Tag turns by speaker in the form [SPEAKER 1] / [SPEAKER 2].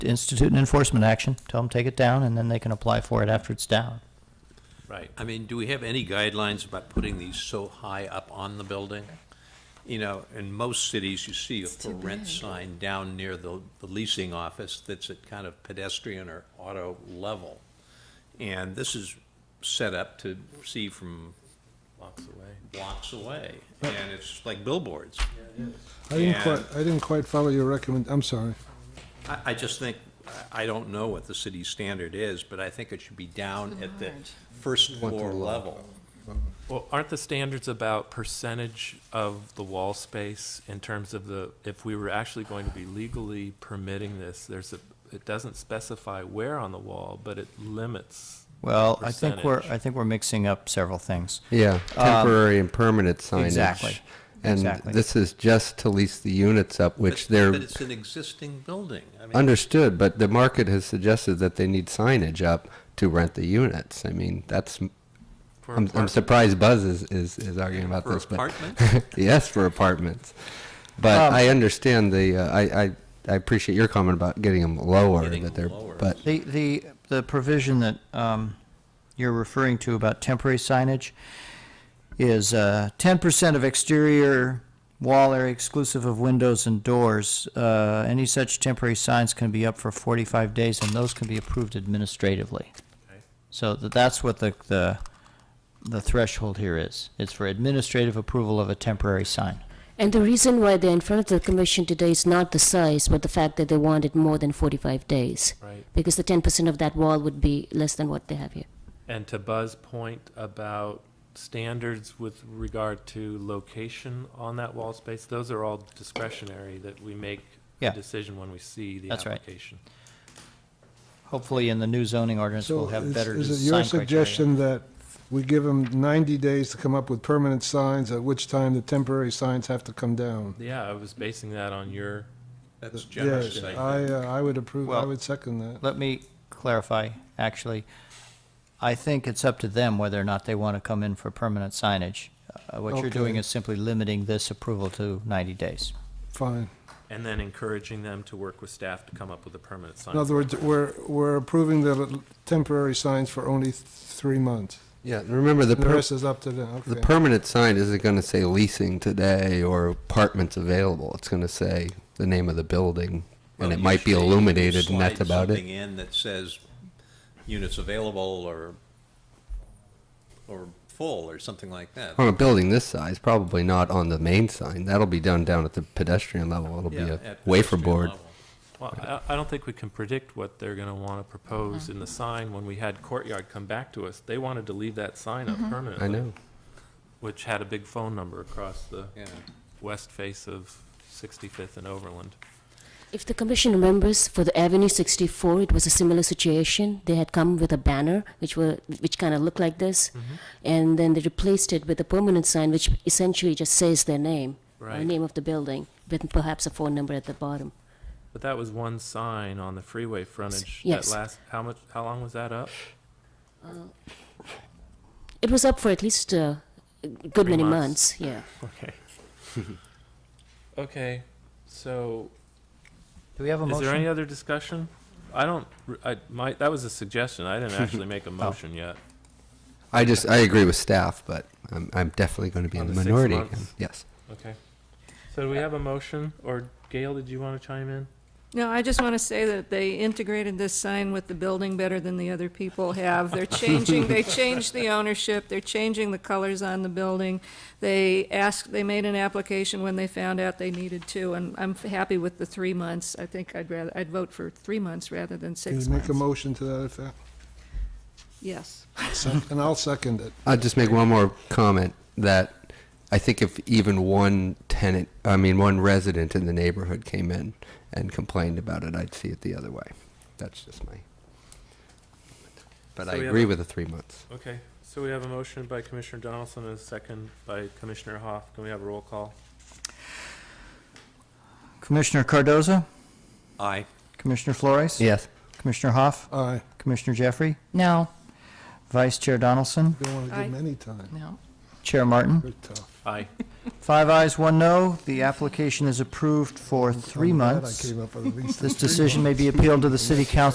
[SPEAKER 1] to institute an enforcement action, tell them take it down, and then they can apply for it after it's down.
[SPEAKER 2] Right, I mean, do we have any guidelines about putting these so high up on the building? You know, in most cities, you see a for rent sign down near the, the leasing office that's at kind of pedestrian or auto level. And this is set up to see from. Blocks away. Blocks away, and it's like billboards.
[SPEAKER 3] I didn't
[SPEAKER 2] And-
[SPEAKER 3] quite, I didn't quite follow your recommend, I'm sorry.
[SPEAKER 2] I, I just think, I I don't know what the city standard is, but I think it should be down at the first floor level.
[SPEAKER 4] Well, aren't the standards about percentage of the wall space in terms of the, if we were actually going to be legally permitting this, there's a, it doesn't specify where on the wall, but it limits.
[SPEAKER 1] Well, I think we're,
[SPEAKER 4] Percentage.
[SPEAKER 1] I think we're mixing up several things.
[SPEAKER 5] Yeah, temporary and permanent signage.
[SPEAKER 1] Um, exactly,
[SPEAKER 5] And
[SPEAKER 1] exactly.
[SPEAKER 5] this is just to lease the units up, which
[SPEAKER 2] But-
[SPEAKER 5] they're
[SPEAKER 2] But it's an existing building. I mean,
[SPEAKER 5] understood, but the market has suggested that they need signage up to rent the units. I mean, that's,
[SPEAKER 4] for
[SPEAKER 5] I'm, I'm
[SPEAKER 4] apartment-
[SPEAKER 5] surprised Buzz is, is, is arguing about
[SPEAKER 2] For
[SPEAKER 5] this. but-
[SPEAKER 2] apartments?
[SPEAKER 5] Yes, for apartments. But
[SPEAKER 1] Um,
[SPEAKER 5] I understand the, uh, I, I, I appreciate your comment about getting them lower,
[SPEAKER 2] Getting
[SPEAKER 5] that
[SPEAKER 2] 'em
[SPEAKER 5] they're,
[SPEAKER 2] lower.
[SPEAKER 5] but,
[SPEAKER 1] The, the, the provision that um, you're referring to about temporary signage is uh, ten percent of exterior wall area exclusive of windows and doors. Uh, Any such temporary signs can be up for forty-five days, and those can be approved administratively. So tha- that's what the, the, the threshold here is. It's for administrative approval of a temporary sign.
[SPEAKER 6] And the reason why they're in front of the commission today is not the size, but the fact that they wanted more than 45 days.
[SPEAKER 4] Right.
[SPEAKER 6] Because the 10% of that wall would be less than what they have here.
[SPEAKER 4] And to Buzz's point about standards with regard to location on that wall space, those are all discretionary that we make a
[SPEAKER 1] Yeah.
[SPEAKER 4] decision when we see the
[SPEAKER 1] That's right.
[SPEAKER 4] application.
[SPEAKER 1] Hopefully, in the new zoning ordinance,
[SPEAKER 3] So
[SPEAKER 1] we'll have
[SPEAKER 3] is-
[SPEAKER 1] better sign criteria.
[SPEAKER 3] Is it your suggestion that we give them 90 days to come up with permanent signs, at which time the temporary signs have to come down?
[SPEAKER 4] Yeah, I was basing that on your,
[SPEAKER 2] That's generous,
[SPEAKER 3] Yes,
[SPEAKER 2] I
[SPEAKER 3] I,
[SPEAKER 2] think.
[SPEAKER 3] uh, I would approve, I
[SPEAKER 1] Well-
[SPEAKER 3] would second that.
[SPEAKER 1] Let me clarify, actually. I think it's up to them whether or not they want to come in for permanent signage. Uh, What you're doing
[SPEAKER 3] Okay.
[SPEAKER 1] is simply limiting this approval to 90 days.
[SPEAKER 3] Fine.
[SPEAKER 4] and then encouraging them to work with staff to come up with a permanent sign.
[SPEAKER 3] In other words, we're, we're approving the l- temporary signs for only th- three months.
[SPEAKER 5] yeah, remember the.
[SPEAKER 3] The
[SPEAKER 5] per-
[SPEAKER 3] rest is up to them,
[SPEAKER 5] The
[SPEAKER 3] okay.
[SPEAKER 5] permanent sign isn't going to say leasing today or apartments available. It's going to say the name of the building, and
[SPEAKER 2] Well,
[SPEAKER 5] it might be
[SPEAKER 2] usually uh, you
[SPEAKER 5] illuminated, and that's
[SPEAKER 2] slide
[SPEAKER 5] about
[SPEAKER 2] Something
[SPEAKER 5] it.
[SPEAKER 2] in that says units available or, or full or something like that.
[SPEAKER 5] On a building this size, probably not on the main sign. That'll be done down at the pedestrian level. It'll
[SPEAKER 2] Yeah,
[SPEAKER 5] be a
[SPEAKER 2] at
[SPEAKER 5] wafer
[SPEAKER 2] pedestrian
[SPEAKER 5] board.
[SPEAKER 2] level.
[SPEAKER 4] Well, I, I don't think we can predict what they're gonna wanna propose in the sign when we had Courtyard come back to us. They wanted to leave that sign up
[SPEAKER 5] I
[SPEAKER 4] permanently,
[SPEAKER 5] know.
[SPEAKER 4] which had a big phone number across the
[SPEAKER 2] Yeah.
[SPEAKER 4] west face of Sixty-Fifth and Overland.
[SPEAKER 6] If the commission remembers, for the Avenue 64, it was a similar situation. They had come with a banner, which were which kind of looked like this,
[SPEAKER 4] Mm-hmm.
[SPEAKER 6] and then they replaced it with a permanent sign, which essentially just says their name, or the
[SPEAKER 4] Right.
[SPEAKER 6] name of the building, with perhaps a phone number at the bottom.
[SPEAKER 4] But that was one sign on the freeway frontage.
[SPEAKER 6] Yes.
[SPEAKER 4] That last, how much, how long was that up?
[SPEAKER 6] It was up for at least uh, a good
[SPEAKER 4] Three
[SPEAKER 6] many
[SPEAKER 4] months.
[SPEAKER 6] months. Yeah.
[SPEAKER 4] Okay. Okay, so,
[SPEAKER 1] Do we have a
[SPEAKER 4] is there any
[SPEAKER 1] motion?
[SPEAKER 4] other discussion? I don't, r- I, my, that was a suggestion. I didn't actually make a
[SPEAKER 1] Oh.
[SPEAKER 4] motion yet.
[SPEAKER 5] I just I agree with staff, but I'm, I'm definitely going to be
[SPEAKER 4] On
[SPEAKER 5] in the
[SPEAKER 4] the six
[SPEAKER 5] minority.
[SPEAKER 4] months?
[SPEAKER 5] again. Yes.
[SPEAKER 4] Okay. So do we have a motion, or Gail, did you wanna chime in?
[SPEAKER 7] No, I just want to say that they integrated this sign with the building better than the other people have. They're changing, they changed the ownership, they're changing the colors on the building. They asked, they made an application when they found out they needed to, and I'm happy with the three months. I think I'd rather, I'd vote for three months rather than
[SPEAKER 3] Can
[SPEAKER 7] six
[SPEAKER 3] you make a
[SPEAKER 7] months.
[SPEAKER 3] motion to that effect?
[SPEAKER 7] Yes.
[SPEAKER 3] Sec- And I'll second it.
[SPEAKER 5] I'll just make one more comment that I think if even one tenant, I mean one resident in the neighborhood came in and complained about it, I'd see it the other way. That's just my. But
[SPEAKER 4] So
[SPEAKER 5] I
[SPEAKER 4] we have
[SPEAKER 5] agree
[SPEAKER 4] a-
[SPEAKER 5] with the three months.
[SPEAKER 4] Okay, so we have a motion by Commissioner Donaldson and a second by Commissioner Hoff. Can we have a roll call?
[SPEAKER 1] Commissioner Cardoza?
[SPEAKER 2] Aye.
[SPEAKER 1] Commissioner Flores?
[SPEAKER 5] Yes.
[SPEAKER 1] Commissioner Hoff?
[SPEAKER 3] Aye.
[SPEAKER 1] Commissioner Jeffrey? No. Vice Chair Donaldson?
[SPEAKER 3] You don't want to
[SPEAKER 7] Aye.
[SPEAKER 3] give them any time.
[SPEAKER 1] Chair Martin?
[SPEAKER 3] They're tough.
[SPEAKER 4] Aye.
[SPEAKER 1] Five ayes, one no. The application is approved for three
[SPEAKER 3] I'm glad I
[SPEAKER 1] months.
[SPEAKER 3] came up with at least
[SPEAKER 1] This
[SPEAKER 3] three
[SPEAKER 1] decision may
[SPEAKER 3] months.
[SPEAKER 1] be appealed to the city council